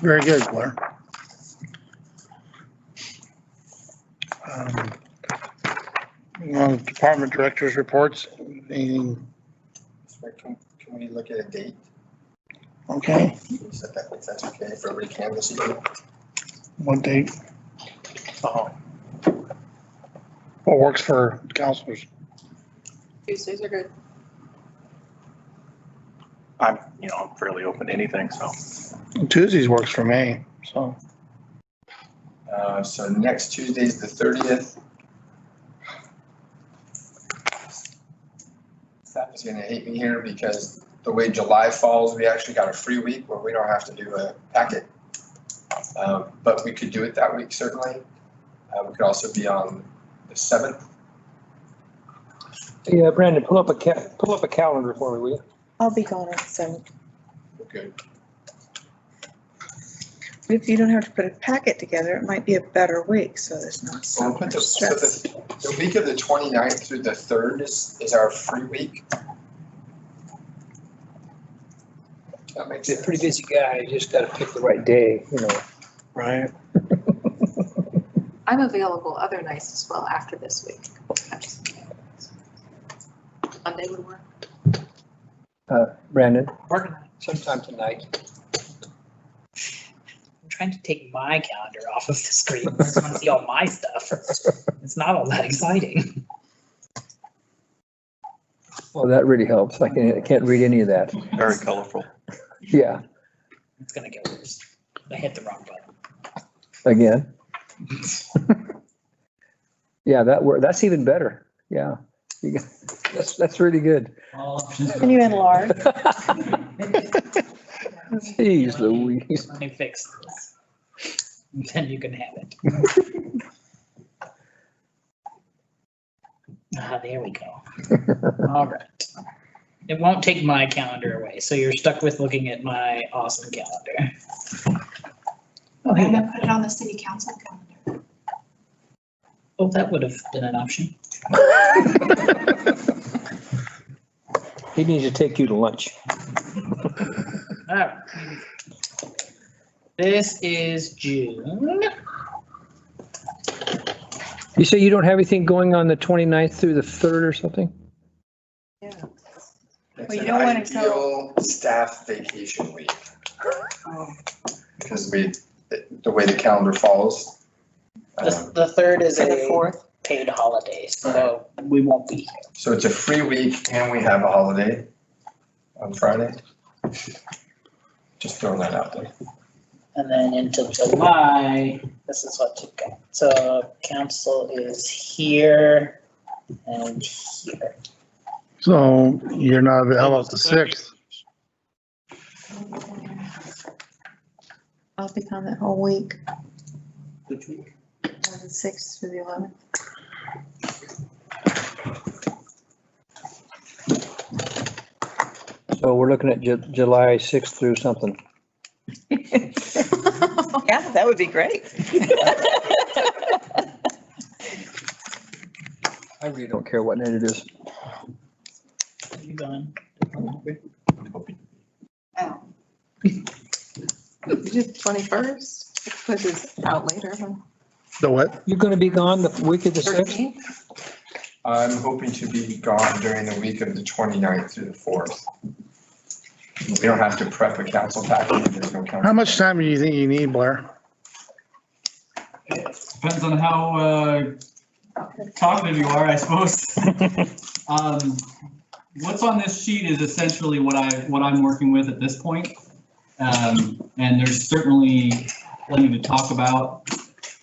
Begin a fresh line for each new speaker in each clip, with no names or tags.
Very good, Blair. Um, moving on to Department directors' reports, Anything?
Can can we look at a date?
okay,
Can we set that, if that's okay, for every canvas year?
what date? Uh-huh. What works for counselors?
Tuesdays are good.
I'm, you know, I'm fairly open to anything, so.
Tuesdays works for me, so,
Uh, So next Tuesday is the thirtieth. Staff is gonna hate me here because the way July falls, we actually got a free week where we don't have to do a packet. Um, But we could do it that week certainly. Uh, We could also be on the seventh.
Yeah, Brandon, pull up a ca- pull up a calendar for me, will you?
I'll be gone on the seventh.
Okay.
If you don't have to put a packet together, it might be a better week, so there's not
Well,
so
we'll put
much
the, so
stress.
the, the week of the 29th through the third is, is our free week. That makes
He's a
sense.
pretty busy guy, you just gotta pick the right day, you know.
right?
I'm available other nights as well after this week. I'm just- Monday would work.
Uh, Brandon,
Working on it.
sometime tonight.
I'm trying to take my calendar off of the screen. I just want to see all my stuff. It's not all that exciting.
Well, that really helps. I can't, I can't read any of that.
Very colorful.
Yeah,
It's gonna get worse. I hit the wrong button.
again. Yeah, that wor, that's even better. Yeah. You got- That's, that's really good.
Well,
Can you enlarge?
Jeez Louise.
Let me fix this. Then you can have it. Ah, there we go. All right. It won't take my calendar away, so you're stuck with looking at my awesome calendar. Oh,
I'm
hey,
gonna put it on the city council calendar.
oh, that would have been an option.
He needs to take you to lunch.
Alright. This is June.
You say you don't have anything going on the 29th through the third or something?
It's
Well, you
an
don't wanna tell-
ideal Staff vacation week.
Oh.
Because we, the- the way the calendar falls.
The,
um,
the third is
For the
a
fourth,
paid holiday, so we won't be here.
So it's a free week and we have a holiday on Friday. Just throwing that out there.
And then into July, this is what you got. So council is here and here.
So you're not available the sixth,
I'll be gone that whole week,
Which week?
from the sixth through the eleventh.
So Oh, we're looking at Ju- July 6th through something.
Yeah, that would be great.
I really don't care what night it is.
You gone?
Twenty-first, which is out later, huh?
the what?
You're gonna be gone the week of the 6th?
thirteenth,
I'm hoping to be gone during the week of the 29th through the fourth. We don't have to prep a council package. There's no council.
How much time do you think you need, Blair?
Depends on how uh, talkative you are, I suppose. Um, What's on this sheet is essentially what I, what I'm working with at this point. Um, And there's certainly plenty to talk about.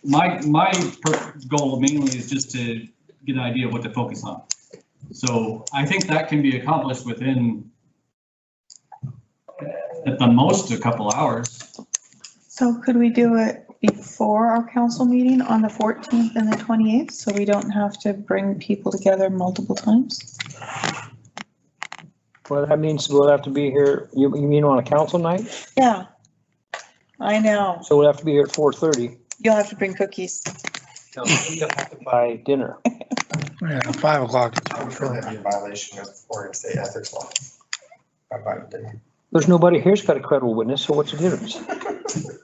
My, my per- goal mainly is just to get an idea of what to focus on. So I think that can be accomplished within, uh, at the most, a couple hours.
So could we do it before our council meeting on the fourteenth and the twenty-eighth, so we don't have to bring people together multiple times?
Well, that means we'll have to be here, you, you mean on a council night?
Yeah. I know.
So we'll have to be here at 4:30.
You'll have to bring cookies.
No, We'll have to buy dinner.
Yeah, five o'clock.
I'm sure that'd be a violation of Oregon State ethics law. I might have been.
There's nobody here's got a credible witness, so what's the difference?